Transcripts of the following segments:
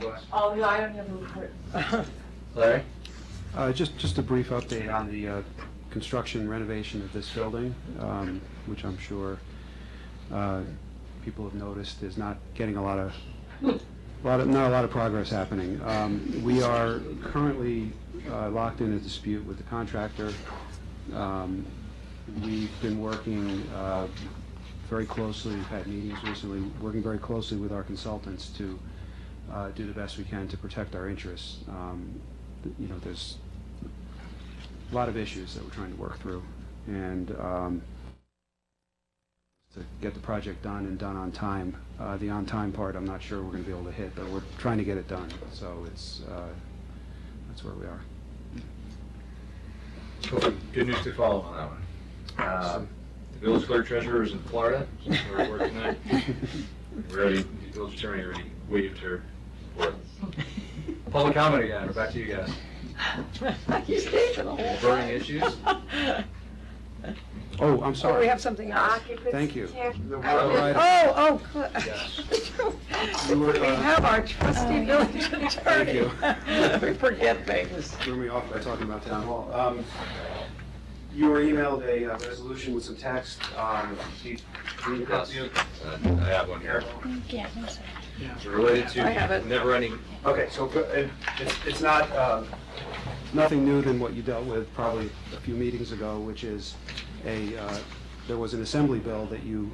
reports? Oh, no, I don't have a report. Larry? Uh, Just, just a brief update on the uh, construction renovation of this building, um, which I'm sure uh, people have noticed is not getting a lot of, lot of, not a lot of progress happening. Um, We are currently uh, locked in a dispute with the contractor. Um, We've been working uh, very closely, we've had meetings recently, working very closely with our consultants to uh, do the best we can to protect our interests. Um, th- You know, there's a lot of issues that we're trying to work through, and um, to get the project done and done on time. Uh, The on-time part, I'm not sure we're going to be able to hit, but we're trying to get it done, so it's, uh, that's where we are. Good news to follow on that one. Uh, The village clerk treasurer is in Florida, she's at work tonight. We Already, the village attorney already waived her. report. Public comment again, we're back to you guys. You stayed for the whole time. Burning issues? Oh, I'm Oh, sorry. Ah. we have something else. Occupancy Thank you. tax- Right. Oh, oh, Yes. You good. were, We uh, have our trusty village attorney. Thank you. We forget things. threw me off by talking about town hall. Um, You were emailed a uh, resolution with some text. um, do you- do you- Yes. Uh, I have one here. Yeah, I'm sorry. It's related to I have it. never-ending Okay, so uh, it's it's not, um, nothing new than what you dealt with probably a few meetings ago, which is a, uh, there was an assembly bill that you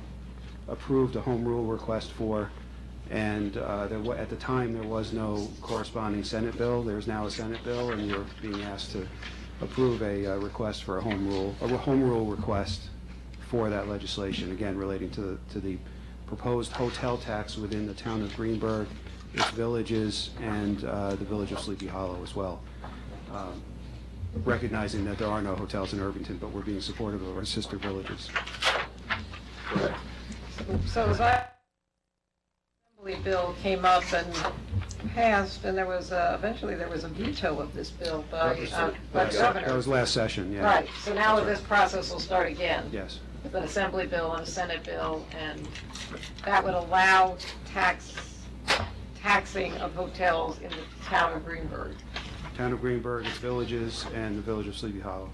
approved a home rule request for, and uh, there wa, at the time, there was no corresponding Senate bill. There's now a Senate bill, and you're being asked to approve a uh, request for a home rule, a home rule request for that legislation, again, relating to the, to the proposed hotel tax within the town of Greenberg, its villages, and uh, the village of Sleepy Hollow as well. Um, Recognizing that there are no hotels in Irvington, but we're being supportive of our sister villages. So as I, Assembly bill came up and passed, and there was, a- eventually there was a veto of this bill by, uh, by That the governor. was last session, yeah. Right, so now this process will start again. Yes. with an assembly bill and a senate bill, and that would allow tax, taxing of hotels in the town of Greenberg. Town of Greenberg, its villages, and the village of Sleepy Hollow.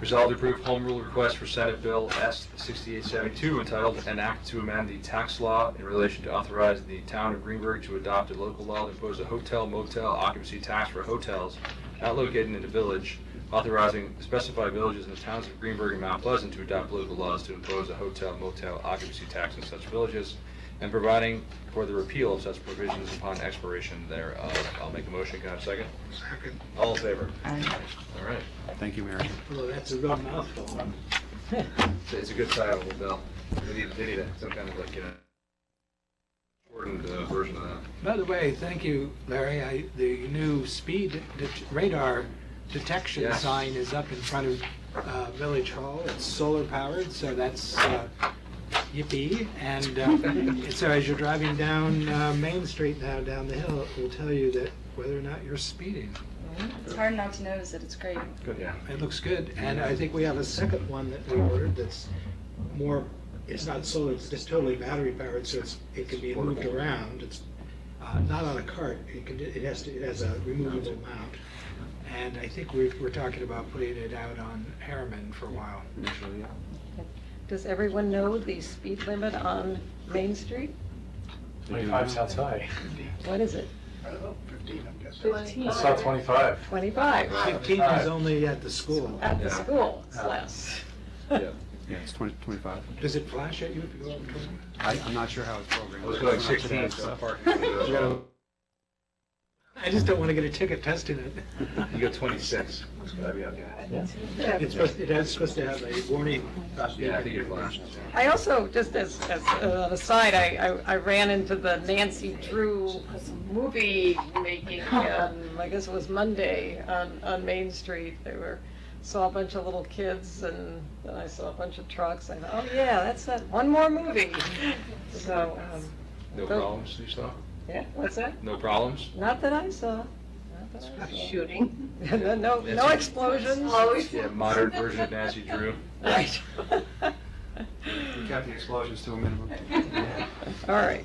Resolved to approve home rule request for Senate Bill S 6872 entitled An Act to Amend the Tax Law in Relation to Authorize the Town of Greenberg to Adopt a Local Law to Impose a Hotel Motel Occupancy Tax for Hotels Not Located in the Village, authorizing specified villages in the towns of Greenberg and Mount Pleasant to adopt local laws to impose a hotel motel occupancy tax in such villages, and providing for the repeal of such provisions upon expiration thereof. I'll make a motion. Can I have a second? Second. All in favor? All right. Thank you, Mary. Well, that's a real mouthful. It's- It's a good title, Bill. They need, they need a- some kind of like, you know, shortened uh, version of that. By the way, thank you, Larry. I, the new speed det- radar detection Yes. sign is up in front of uh, Village Hall. It's solar powered, so that's uh, yippee. And uh, so as you're driving down uh, Main Street now, down the hill, it will tell you that whether or not you're speeding. It's hard not to notice it, it's great. Good. Yeah. It looks good. And I think we have a second one that we ordered that's more, it's not solar, it's just totally battery powered, so it's, it can be moved around. It's uh, not on a cart, it can, it has to, it has a removable mount. And I think we're, we're talking about putting it out on Harriman for a while. Initially, yeah. Does everyone know the speed limit on Main Street? They do now. high. What is it, Fifteen. It's not 25. 25? Fifteen is only at the school. At the Yeah. school, it's less. Yeah, it's 20, 25. Does it flash at you if you go up to it? I- I'm not sure how it's programmed. It was like I'm not sure 16, that's, so uh, parking. we gotta- I just don't want to get a ticket testing it. You got 26. It's gotta be okay. It's supposed, it has supposed to have a warning. Yeah, I think it flashed. I also, just as, as an aside, I, I I ran into the Nancy Drew movie making, um, I guess it was Monday, on, on Main Street. They were, saw a bunch of little kids, and then I saw a bunch of trucks, I thought, oh yeah, that's that, one more movie. So, um, No problems, you saw? yeah, what's that? No problems? Not that I saw. Not that I Shooting. saw. No, no, no explosions. Yeah, modern version of Nancy Drew. Right. We kept the explosions to a minimum. All right.